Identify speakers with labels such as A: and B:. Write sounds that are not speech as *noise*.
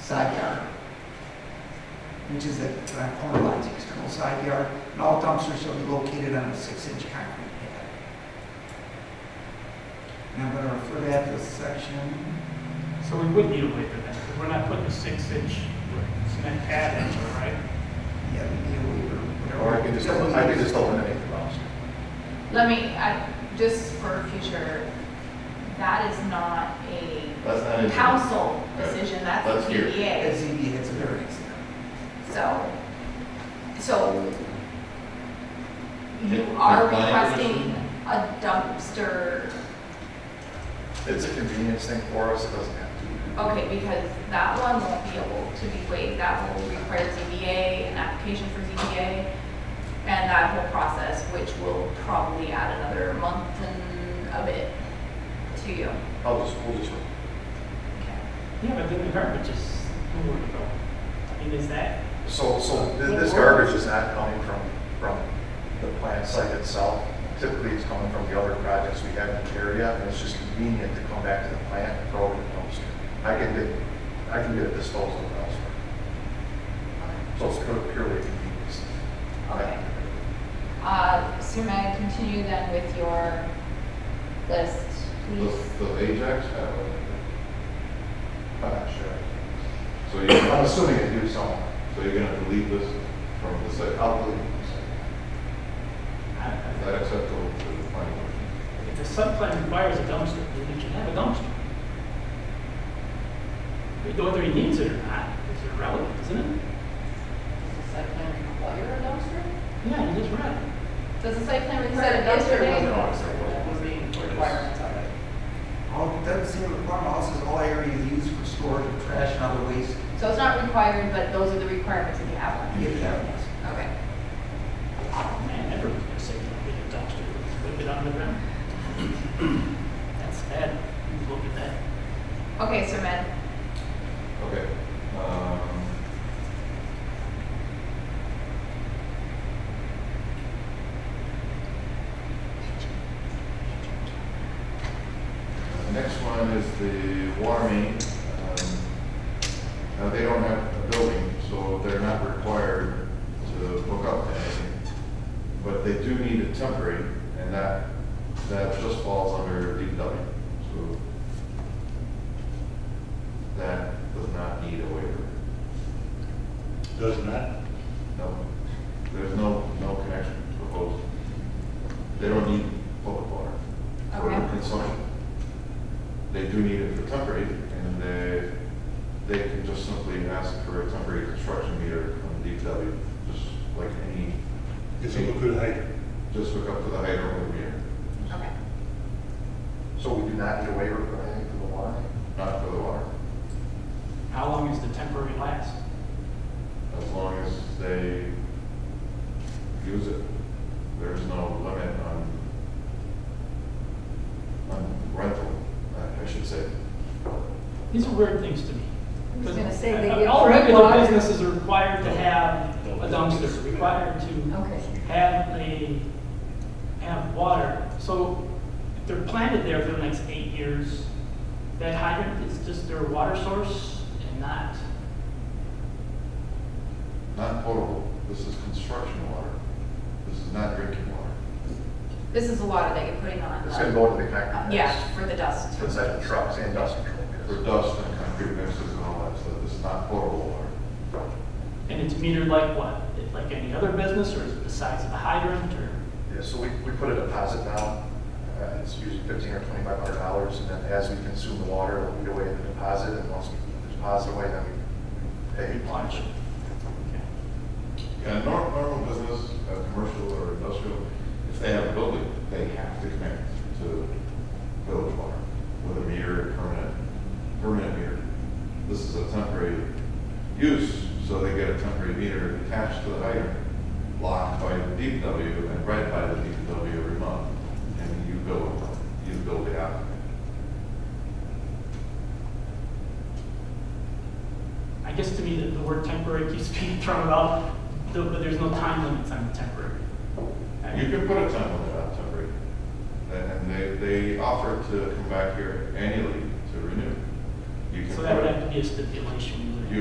A: side yard, which is the uh, corner lines, external side yard, and all dumpsters shall be located on a six-inch concrete pad. And I'm gonna refer that to section,
B: So we would need a waiver then, because we're not putting a six-inch cement pad in there, right?
A: yeah, we need a waiver, E whatever.
C: Or I could just, I could just eliminate the bounds.
D: Let me, I, just for future, that is not a
E: That's not in.
D: council
E: Right.
D: decision, that's
E: That's
D: a
E: here.
D: ZBA.
A: That's ZBA, that's a variance.
D: So, so you
E: Can-
D: are
E: can I have a
D: requesting
E: motion?
D: a dumpster,
C: It's a convenience thing for us, it doesn't have to.
D: okay, because that one won't be able to be waived, that will require ZBA, an application for ZBA, and that whole process, which will probably add another month and a bit to you.
C: I'll just, we'll just,
B: Yeah, but then the garbage is, where would it go? I mean, is that,
C: so, so thi- this garbage is not coming from, from the plant site itself. Typically, it's coming from the other projects we have in the area, and it's just convenient to come back to the plant and throw it in the dumpster. I can get, I can get a disposal elsewhere. So it's pure- purely a convenience.
D: Okay. Uh, so may I continue then with your list, please?
E: Does, does Ajax have a,
C: I'm not sure.
E: so you're,
C: I'm
E: so
C: assuming it do so.
E: you're gonna delete this from the site?
C: I'll believe
B: I-
E: Is
B: I-
E: that acceptable to the planning commission?
B: if the site plan requires a dumpster, then you should have a dumpster. But Whether he needs it or not is irrelevant, isn't it?
F: Does the site plan require a dumpster?
B: Yeah, it is relevant.
D: Does the site plan
F: It
D: require
F: said
D: a
F: a dumpster
D: day?
F: was an
E: No, it
F: dumpster,
E: wasn't.
F: that was the requirements of it.
A: All, doesn't say requirement, all says all areas used for storage of trash and other waste,
D: So it's not required, but those are the requirements if you have one.
A: if that was.
D: Okay.
B: Man, everyone's gonna say, don't get a dumpster, put it on the *clears throat* ground. That's bad, look at that.
D: Okay, so Matt,
E: Okay, um. The Next one is the water main. Um, Now, they don't have a building, so they're not required to hook up to anything. But they do need a temporary, and that, that just falls under DPW. So that does not need a waiver.
G: Does not?
E: No, there's no, no connection proposed. They don't need public water for
D: Okay.
E: consumption. They do need it for temporary, and they, they can just simply ask for a temporary construction meter from DPW, just like any,
G: It's a good hydrant.
E: just hook up to the hydrant over here,
D: okay.
C: So we do not need a waiver for anything for the water?
E: not for the water.
B: How long is the temporary last?
E: As long as they use it, there's no limit on, on rental, I- I should say.
B: These are weird things to me.
F: I was gonna say they
B: Uh,
F: get
B: All
F: free
B: regular
F: water.
B: businesses are required to have a dumpster, required to
F: Okay.
B: have a, have water. So if they're planted there for the next eight years, that hydrant is just their water source and not,
E: Not potable, this is construction water, this is not drinking water.
D: This is the water that you're putting on
C: It's gonna
D: the,
C: go to the
D: uh,
C: concrete.
D: yeah, for the dust.
C: Inside the trucks and dust control.
E: For dust and concrete mixes and all that stuff, this is not potable water.
B: and it's metered like what? Like any other business or is it the size of the hydrant or?
C: Yeah, so we, we put a deposit down, uh, it's usually fifteen or twenty-five hundred dollars, and then as we consume the water, we'll eat away the deposit, and once we put the deposit away, then we pay.
B: Watch.
E: Yeah, normal, normal business, uh, commercial or industrial, if they have a building, they have to connect to village water with a meter, permanent, permanent meter. This is a temporary use, so they get a temporary meter attached to the hydrant, locked by the DPW and read by the DPW every month, and you build, you build it out.
B: I guess to me, the, the word temporary keeps *laughs* being thrown about, though, but there's no time limits on the temporary. I
E: You can put a time limit on temporary, and they, they offer to come back here annually to renew. You can
B: So that
E: put
B: would have
E: it-
B: to be a stipulation. wouldn't it?
E: You